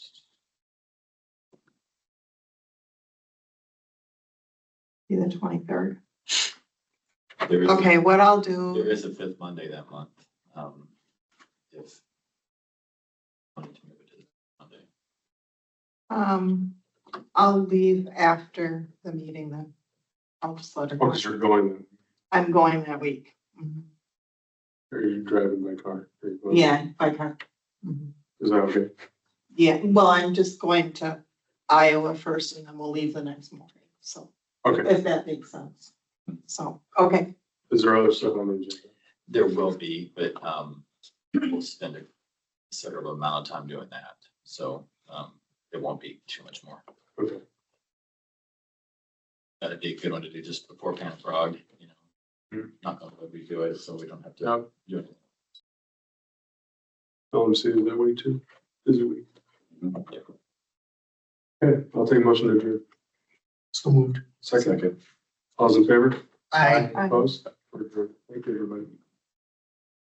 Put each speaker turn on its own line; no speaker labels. be the twenty-third.
There is,
Okay, what I'll
there
do,
is a fifth Monday that month. um, If. wanted to move it to the Monday.
um, I'll leave after the meeting then. I'll just let her
Oh,
go.
because you're going,
I'm going that week. Mhm.
are you driving by car? Are you going-
Yeah, if I can. Mhm.
Is that okay?
Yeah, well, I'm just going to Iowa first and then we'll leave the next morning, so
Okay,
if that makes sense. So, okay,
is there other stuff on the agenda?
There will be, but um, we'll spend a considerable amount of time doing that. So um, it won't be too much more.
Okay,
That'd be a good one to do just before Pan Frog, you know.
Hmm.
Not gonna redo it, so we don't have to
now,
do it.
tell them to say it that way too, busy week. Mm-hmm. Okay, I'll take a motion to adjourn.
So moved.
Second. All's in favor?
Aye.
Aye.
Opposed? We're adjourned. Thank you, everybody.